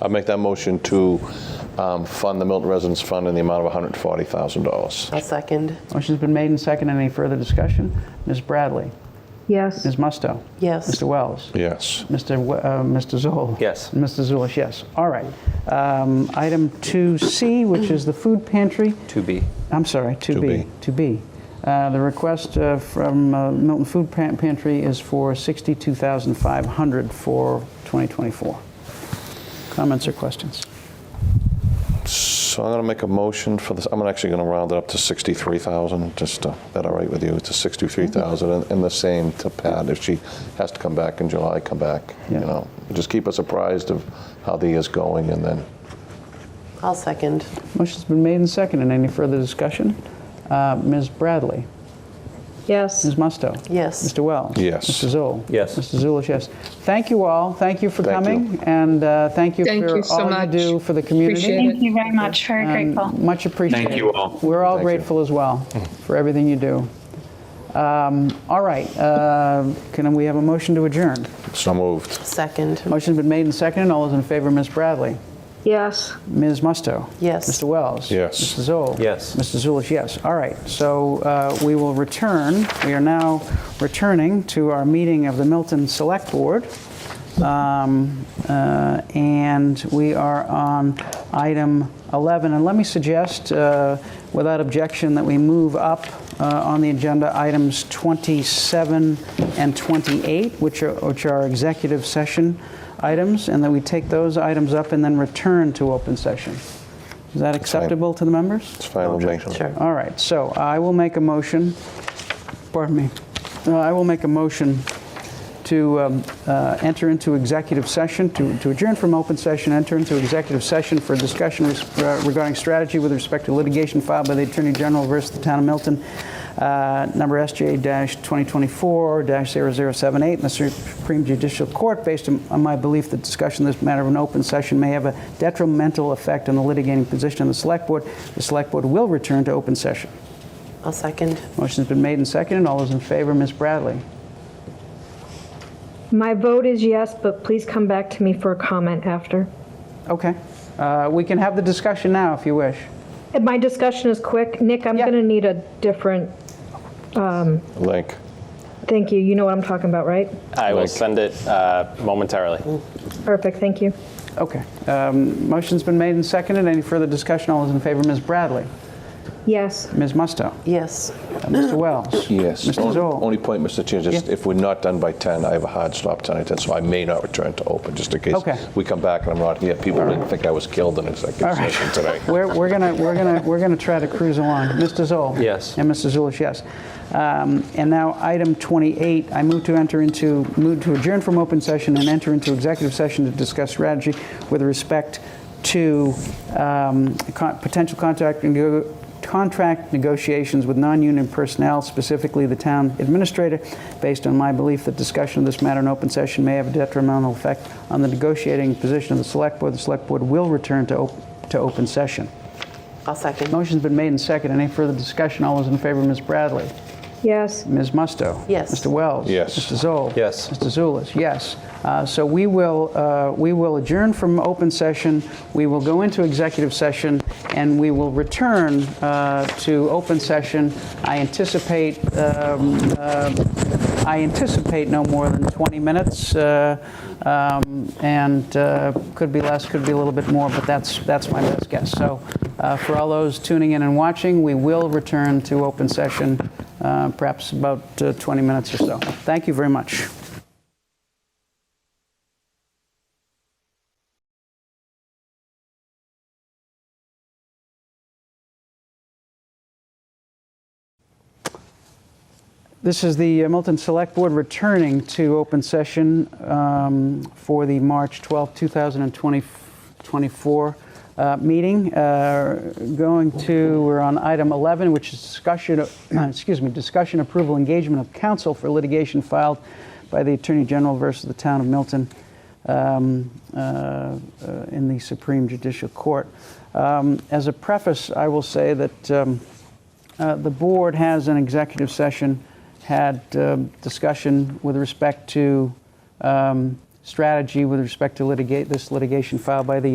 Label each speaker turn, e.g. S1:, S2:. S1: I make that motion to um, fund the Milton Residence Fund in the amount of $140,000.
S2: I'll second.
S3: Motion's been made and seconded. Any further discussion? Ms. Bradley?
S4: Yes.
S3: Ms. Musto?
S2: Yes.
S3: Mr. Wells?
S1: Yes.
S3: Mr. W- uh, Mr. Zoll?
S5: Yes.
S3: Mr. Zulish, yes. All right. Um, Item 2C, which is the food pantry.
S5: To be.
S3: I'm sorry, 2B.
S1: 2B.
S3: 2B. Uh, The request uh, from uh, Milton Food Pan- Pantry is for 62500 for 2024. Comments or questions?
S1: So I'm going to make a motion for this, I'm actually going to round it up to 63,000, just, to- that all right with you? To 63,000, and- and the same to Pat, if she has to come back in July, come back, you
S3: Yeah.
S1: know? Just keep us apprised of how the year's going, and then,
S2: I'll second.
S3: Motion's been made and seconded. Any further discussion? Uh, Ms. Bradley?
S4: Yes.
S3: Ms. Musto?
S2: Yes.
S3: Mr. Wells?
S1: Yes.
S3: Mr. Zoll?
S5: Yes.
S3: Mr. Zulish, yes. Thank you all. Thank you for
S1: Thank you.
S3: coming. And uh, thank you
S6: Thank
S3: for
S6: you so
S3: all
S6: much.
S3: you do for the community.
S6: Appreciate
S7: Thank you very much. Very
S3: And
S7: grateful.
S3: Much appreciated.
S8: Thank you all.
S3: We're all
S1: Thank you.
S3: grateful as well for everything you do. Um, All right, uh, can we have a motion to adjourn?
S1: so moved.
S2: Second.
S3: Motion's been made and seconded. All those in favor, Ms. Bradley?
S4: Yes.
S3: Ms. Musto?
S2: Yes.
S3: Mr. Wells?
S1: Yes.
S3: Mr. Zoll?
S5: Yes.
S3: Mr. Zulish, yes. All right, so uh, we will return. We are now returning to our meeting of the Milton Select Board. Um, uh, And we are on item 11. And let me suggest, uh, without objection, that we move up uh, on the agenda items 27 and 28, which are which are executive session items, and that we take those items up and then return to open session. Is that
S1: fine.
S3: acceptable to the members?
S1: It's fine with me.
S2: Sure.
S3: All right, so I will make a motion, pardon me, Uh, I will make a motion to um, uh, enter into executive session, to to adjourn from open session, enter into executive session for discussion res- uh, regarding strategy with respect to litigation filed by the Attorney General versus the Town of Milton, uh, number SJ-2024-0078 in the Supreme Judicial Court, based on on my belief that discussion of this matter of an open session may have a detrimental effect on the litigating position of the Select Board. The Select Board will return to open session.
S2: I'll second.
S3: Motion's been made and seconded. All those in favor, Ms. Bradley?
S4: My vote is yes, but please come back to me for a comment after.
S3: Okay. Uh, We can have the discussion now if you wish.
S4: My discussion is quick. Nick, I'm
S3: Yeah.
S4: going to need a different,
S1: Link.
S4: thank you. You know what I'm talking about, right?
S5: I will
S1: Like-
S5: send it uh, momentarily.
S4: Perfect, thank you.
S3: Okay. Um, Motion's been made and seconded. Any further discussion? All those in favor, Ms. Bradley?
S4: Yes.
S3: Ms. Musto?
S2: Yes.
S3: Uh, Mr. Wells?
S1: Yes.
S3: Mr.
S1: Only-
S3: Zoll?
S1: Only point, Mr. Chair, just
S3: Yeah.
S1: if we're not done by 10, I have a hard stop 10 at 10, so I may not return to open, just in case
S3: Okay.
S1: we come back and I'm not here. People didn't think I was killed in executive session today.
S3: We're we're gonna, we're gonna, we're gonna try to cruise along. Mr. Zoll?
S5: Yes.
S3: And Mr. Zulish, yes. Um, And now, item 28, I move to enter into, move to adjourn from open session and enter into executive session to discuss strategy with respect to um, con- potential contract nego- contract negotiations with non-union personnel, specifically the town administrator, based on my belief that discussion of this matter in open session may have a detrimental effect on the negotiating position of the select board. The select board will return to op- to open session.
S2: I'll second.
S3: Motion's been made and seconded. Any further discussion? All those in favor, Ms. Bradley?
S4: Yes.
S3: Ms. Musto?
S2: Yes.
S3: Mr. Wells?
S1: Yes.
S3: Mr. Zoll?
S5: Yes.
S3: Mr. Zulish, yes. Uh, So we will, uh, we will adjourn from open session, we will go into executive session, and we will return uh, to open session. I anticipate, um, uh, I anticipate no more than 20 minutes, uh, um, and uh, could be less, could be a little bit more, but that's, that's my best guess. So uh, for all those tuning in and watching, we will return to open session, uh, perhaps about uh, 20 minutes or so. Thank you very much. This is the uh, Milton Select Board returning to open session um, for the March 12, 2024 uh, meeting. Uh, Going to, we're on item 11, which is discussion, of- excuse me, discussion approval engagement of counsel for litigation filed by the Attorney General versus the Town of Milton um, uh, uh, in the Supreme Judicial Court. Um, As a preface, I will say that um, uh, the board has an executive session, had um, discussion with respect to um, strategy, with respect to litigate, this litigation filed by the